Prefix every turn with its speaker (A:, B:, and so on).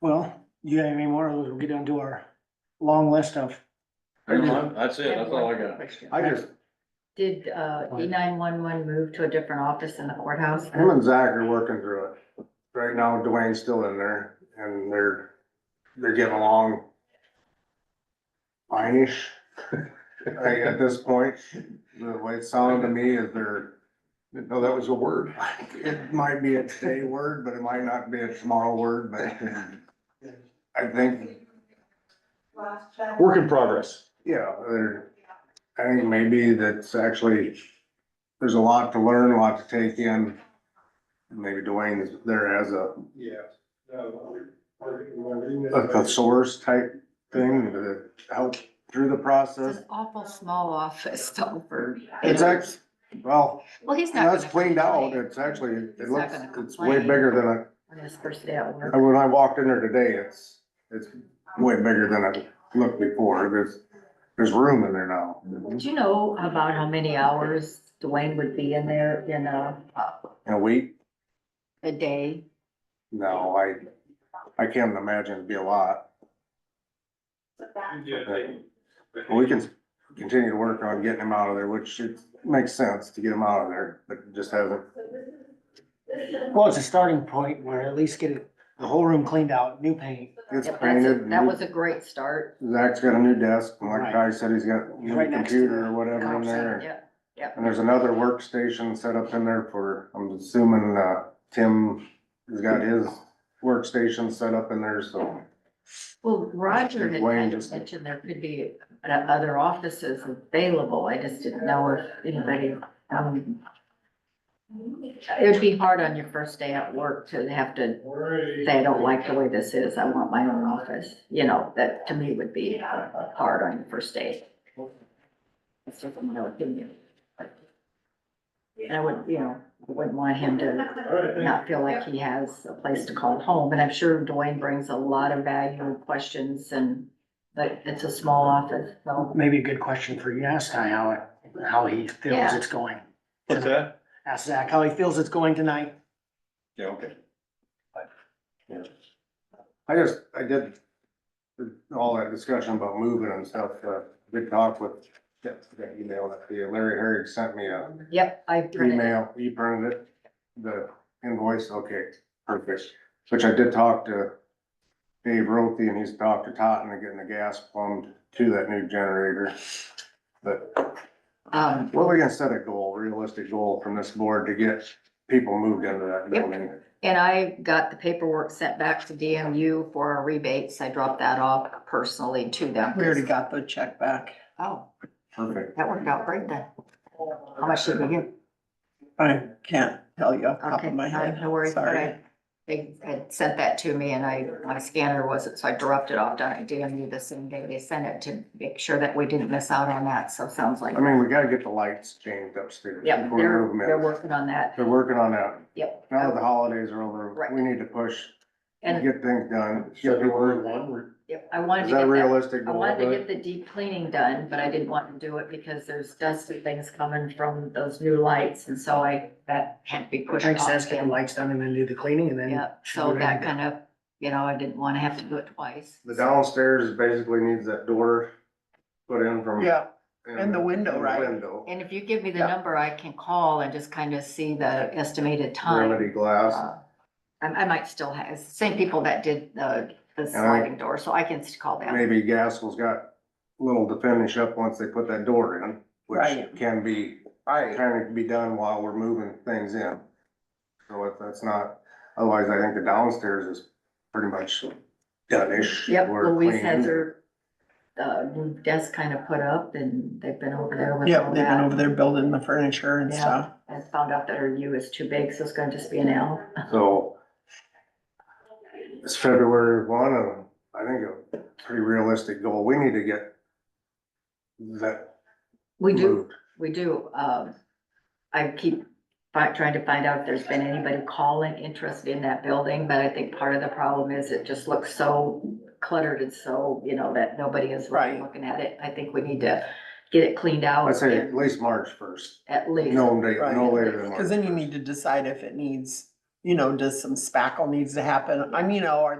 A: Well, you have any more, we'll get onto our long list of,
B: I
C: No,
B: do.
C: That's it,
D: have
C: that's all I
D: one
C: got.
D: question.
B: I just,
D: Did, uh, E nine one one move to a different office in the courthouse?
B: him and Zach are working through it. Right now Dwayne's still in there and they're, they're getting along fine-ish. Like, at this point, the way it sounded to me is they're,
C: No, that was a word.
B: it might be a today word, but it might not be a tomorrow word, but I think
C: Work in progress.
B: Yeah, there, I think maybe that's actually, there's a lot to learn, a lot to take in. Maybe Dwayne is there as a, a
E: Yeah.
B: thesaurus type thing to help through the
D: It's
B: process.
D: an awful small office though for.
B: It's act, well,
D: Well, he's not.
B: now it's
D: gonna
B: cleaned out,
D: complain
B: it's actually, it
D: He's not
B: looks,
D: gonna
B: it's way
D: complain.
B: bigger than
D: On his first day at
B: I,
D: work.
B: when I walked in there today, it's, it's way bigger than it looked before. There's, there's room in there now.
D: Do you know about how many hours Dwayne would be in there in a, uh,
B: In a week,
D: a day?
B: No, I, I can't imagine it'd be a lot. We can continue to work on getting him out of there, which it makes sense to get him out of there, but it just hasn't.
A: well, it's a starting point where at least get it- the whole room cleaned out, new paint.
D: Yep,
B: It's
D: that's a-
B: painted.
D: That was a great start.
B: Zach's got a new desk, and like Ty said, he's got a new
A: Right next to
B: computer
A: the
B: or whatever in there.
D: Yeah, yeah.
B: And there's another workstation set up in there for, I'm assuming, uh, Tim has got his workstation set up in there, so.
D: Well, Roger had
B: Wayne
D: kind of
B: just-
D: mentioned there could be uh, other offices available. I just didn't know if anybody, um. It would be hard on your first day at work to have to say, I don't like the way this is. I want my own office. You know, that to me would be uh, hard on your first day. That's just my opinion. And I would, you know, I wouldn't want him to not feel like he has a place to call home, and I'm sure Dwayne brings a lot of value and questions and, but it's a small office, so.
A: Maybe a good question for you, ask Ty how, it- how he feels
D: Yeah.
A: it's going.
C: What's that?
A: Ask Zach how he feels it's going tonight.
C: Yeah, okay.
B: I just, I did all that discussion about moving and stuff, uh, did talk with, that that email that the Larry Herrig sent me a
D: Yep, I printed it.
B: email, you printed it, the invoice, okay, perfect. Which I did talk to Dave Rothie and he's talked to Totten and getting the gas plumbed to that new generator. But
D: Um,
B: what are we gonna set a goal, realistic goal from this board to get people moved into that
D: Yep.
B: building?
D: and I got the paperwork sent back to DMU for our rebates, I dropped that off personally to them.
F: We already got the check back.
D: Oh,
B: Perfect.
D: that worked out great then. How much did we get?
F: I can't tell you off the top
D: Okay,
F: of my head.
D: no worries, but
F: Sorry.
D: I, they had sent that to me and I, my scanner wasn't, so I dropped it off down at DMU the same day they sent it to make sure that we didn't miss out on that, so it sounds like.
B: I mean, we gotta get the lights changed upstairs.
D: Yep,
B: before we
D: they're,
B: move 'em in.
D: they're working on that,
B: They're working on that.
D: yep.
B: Now that the holidays are over,
D: Right.
B: we need to push, and
D: And,
B: get things done. Get people-
C: February one.
D: yep, I wanted
B: Is
D: to
B: that
D: get
B: a
D: that,
B: realistic
D: I
B: goal?
D: wanted to
B: Bud?
D: get the deep cleaning done, but I didn't want to do it because there's dust and things coming from those new lights, and so I, that had to be pushed
A: Thanks,
D: off.
A: ask get the lights done and then do the cleaning and then.
D: Yep, so that kind of, you know, I didn't want to have to do it twice.
B: The downstairs basically needs that door put in from.
F: Yeah, and the window, right?
B: Window,
D: And if you give me the
F: Yeah.
D: number, I can call and just kind of see the estimated
B: remedy
D: time.
B: glass.
D: Uh, I, I might still have, it's the same people that did the, the
B: I-
D: sliding door, so I can just call them.
B: Maybe Gaskell's got little to finish up once they put that door in, which
F: Right.
B: can be,
F: Right.
B: kind of be done while we're moving things in. So if that's not, otherwise I think the downstairs is pretty much done-ish.
D: Yep,
B: We're
D: Louise has
B: cleaning.
D: her, uh, new desk kind of put up and they've been over there with
F: Yep,
D: all
F: they've been over
D: that.
F: there building the furniture and
D: Yeah.
F: stuff.
D: And found out that her U is too big, so it's gonna just be an L.
B: So it's February one, and I think a pretty realistic goal. We need to get that
D: We do,
B: moved.
D: we do, um, I keep fi- trying to find out if there's been anybody calling interested in that building, but I think part of the problem is it just looks so cluttered and so, you know, that nobody is really
F: Right.
D: looking at it. I think we need to get it cleaned out.
B: I'd say at
D: and
B: least March first,
D: At least.
B: no date, no
F: Right.
B: later than March.
F: Cause then you need to decide if it needs, you know, does some spackle needs to happen? I mean, you know, or